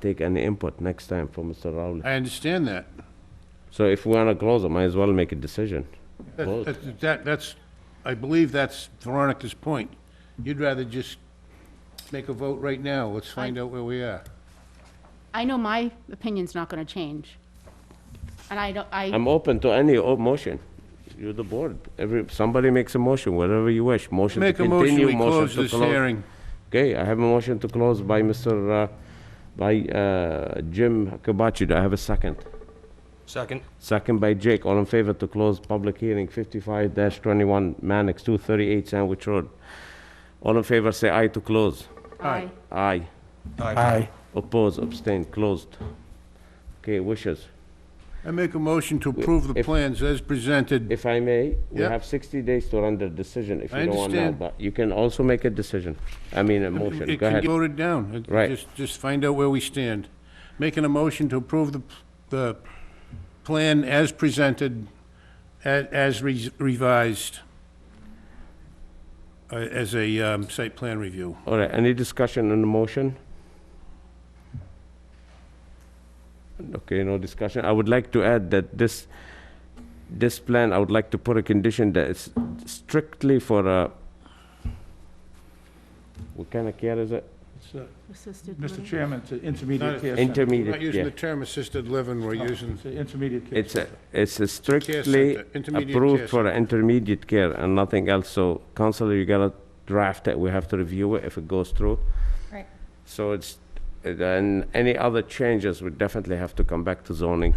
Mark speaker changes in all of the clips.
Speaker 1: take any input next time from Mr. Rowley.
Speaker 2: I understand that.
Speaker 1: So if we wanna close it, might as well make a decision.
Speaker 2: That-
Speaker 1: Vote.
Speaker 2: that- That, that's, I believe that's Veronica's point. You'd rather just make a vote right now, let's find out where we are.
Speaker 3: I know my opinion's not gonna change. And I don't, I,
Speaker 1: I'm open to any o- motion. You're the board. Every, somebody makes a motion, whatever you wish. Motion to
Speaker 2: Make a motion,
Speaker 1: continue,
Speaker 2: we
Speaker 1: motion
Speaker 2: close
Speaker 1: to
Speaker 2: this
Speaker 1: close.
Speaker 2: hearing.
Speaker 1: Okay, I have a motion to close by Mr., uh, by, uh, Jim Kabachi. Do I have a second?
Speaker 4: Second.
Speaker 1: Second by Jake. All in favor to close public hearing fifty-five twenty-one, Mannix, two thirty-eight Sandwich Road. All in favor, say aye to close.
Speaker 3: I,
Speaker 1: Aye.
Speaker 4: Aye.
Speaker 1: Oppose, abstain, closed. Okay, wishes.
Speaker 2: I make a motion to approve the
Speaker 1: If-
Speaker 2: plans as presented.
Speaker 1: If I may, we
Speaker 2: Yeah.
Speaker 1: have 60 days to render decision if
Speaker 2: I
Speaker 1: you don't want now,
Speaker 2: understand.
Speaker 1: but you can also make a decision, I mean, a motion, go
Speaker 2: It can
Speaker 1: ahead.
Speaker 2: get voted down. It-
Speaker 1: Right.
Speaker 2: Just, just find out where we stand. Making a motion to approve the, the plan as presented, a- as re- revised, uh, as a um, site plan review.
Speaker 1: All right, any discussion on the motion? Okay, no discussion. I would like to add that this, this plan, I would like to put a condition that it's strictly for a, what kind of care is it?
Speaker 5: It's, uh,
Speaker 3: assisted
Speaker 5: Mr.
Speaker 3: living.
Speaker 5: Chairman, it's an
Speaker 2: Not-
Speaker 5: intermediate
Speaker 2: We're
Speaker 5: care center.
Speaker 2: not
Speaker 1: Intermediate,
Speaker 2: using the
Speaker 1: yeah.
Speaker 2: term assisted living, we're using
Speaker 5: It's an intermediate care.
Speaker 1: It's, a
Speaker 5: center.
Speaker 1: it's a strictly
Speaker 2: center, intermediate care
Speaker 1: approved for intermediate care and nothing else, so council, you gotta draft it, we have to review it if it goes through.
Speaker 6: Right.
Speaker 1: So it's, then any other changes, we definitely have to come back to zoning.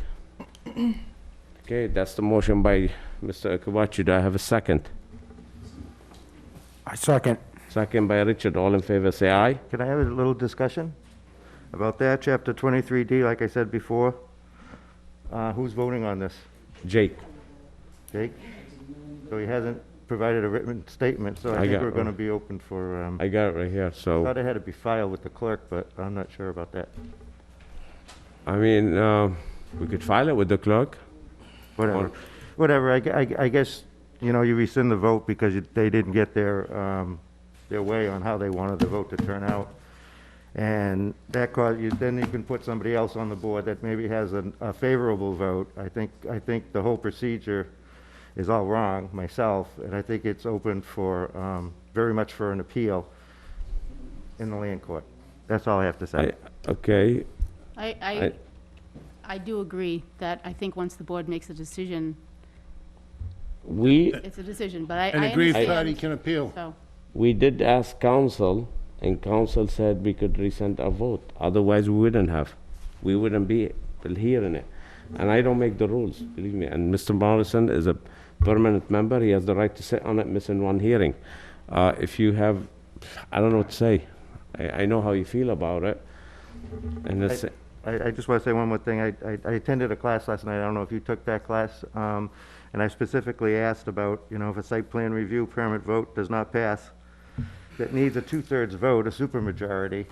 Speaker 1: Okay, that's the motion by Mr. Akabachi, do I have a second?
Speaker 7: I second.
Speaker 1: Second by Richard, all in favor, say aye.
Speaker 7: Can I have a little discussion about that? Chapter 23D, like I said before. Uh, Who's voting on this?
Speaker 1: Jake,
Speaker 7: Jake? So he hasn't provided a written statement, so
Speaker 1: I
Speaker 7: I think
Speaker 1: got-
Speaker 7: we're going to be open for, um,
Speaker 1: I got it right here, so,
Speaker 7: thought it had to be filed with the clerk, but I'm not sure about that.
Speaker 1: I mean, uh, we could file it with the clerk.
Speaker 7: Whatever. Whatever, I, gu- I gu- I guess, you know, you rescind the vote because you- they didn't get their, um, their way on how they wanted the vote to turn out. And that caused you, then you can put somebody else on the board that maybe has an- a favorable vote. I think, I think the whole procedure is all wrong, myself, and I think it's open for, um, very much for an appeal in the land court. That's all I have to say.
Speaker 1: I, okay,
Speaker 3: I, I,
Speaker 1: I-
Speaker 3: I do agree that I think once the board makes a decision,
Speaker 1: we
Speaker 3: it's a decision, but I,
Speaker 2: An
Speaker 3: I
Speaker 2: aggrieved party
Speaker 3: understand.
Speaker 2: can appeal.
Speaker 3: So,
Speaker 1: We did ask council, and council said we could rescind our vote, otherwise we wouldn't have. We wouldn't be hearing it. And I don't make the rules, believe me, and Mr. Morrison is a permanent member, he has the right to sit on it, missing one hearing. Uh, if you have, I don't know what to say, I, I know how you feel about it, and it's,
Speaker 7: I, I just want to say one more thing. I, I- I attended a class last night, I don't know if you took that class, um, and I specifically asked about, you know, if a site plan review permit vote does not pass, that needs a two-thirds vote, a supermajority,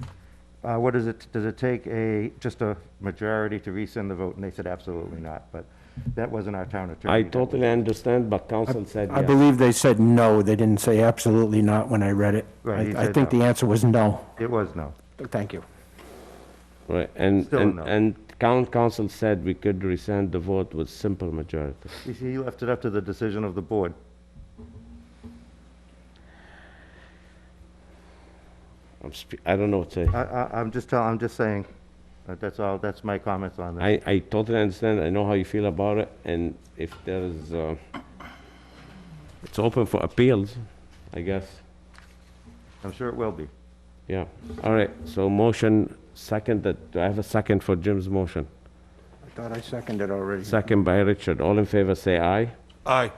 Speaker 7: uh, what does it, does it take a, just a majority to rescind the vote? And they said absolutely not, but that wasn't our town attorney.
Speaker 1: I
Speaker 7: That was-
Speaker 1: totally understand, but council said yes.
Speaker 7: I Yeah.
Speaker 8: I believe they said no, they didn't say absolutely not when I read it.
Speaker 7: Right, he
Speaker 8: I I
Speaker 7: said
Speaker 8: think
Speaker 7: no.
Speaker 8: the answer was no.
Speaker 7: It was no.
Speaker 8: Thank you.
Speaker 1: Right, and,
Speaker 7: Still
Speaker 1: and,
Speaker 7: no.
Speaker 1: and town council said we could rescind the vote with simple majority.
Speaker 7: You see, you left it up to the decision of the board.
Speaker 1: I'm spe- I don't know what to say.
Speaker 7: I, I, I'm just telling, I'm just saying, uh, that's all, that's my comments on this.
Speaker 1: I, I totally understand, I know how you feel about it, and if there is, uh, it's open for appeals, I guess,
Speaker 7: I'm sure it will be.
Speaker 1: yeah. All right, so motion, second, that, do I have a second for Jim's motion?
Speaker 8: I thought I seconded already.
Speaker 1: Second by Richard, all in favor, say aye.
Speaker 4: Aye.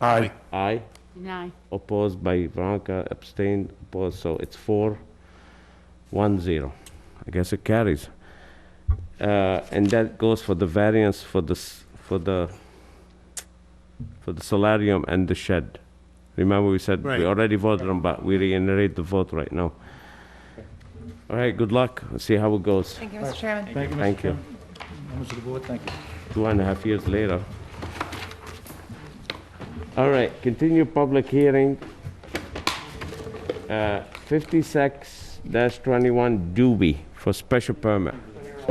Speaker 8: Aye.
Speaker 1: Aye,
Speaker 3: deny.
Speaker 1: opposed by Veronica, abstained, opposed, so it's four, one, zero. I guess it carries. Uh, and that goes for the variance for the, s- for the, for the solarium and the shed. Remember, we said
Speaker 2: Right.
Speaker 1: we already voted on, but we reiterate the vote right now. All right, good luck, Let's see how it goes.
Speaker 6: Thank you, Mr. Chairman.
Speaker 5: Thank you,
Speaker 1: Thank
Speaker 5: Mr.
Speaker 1: you.
Speaker 5: Chairman. Members of the board, thank you.
Speaker 1: two and a half years later. All right, continue public hearing. Uh, 56-21 Doobie for special permit.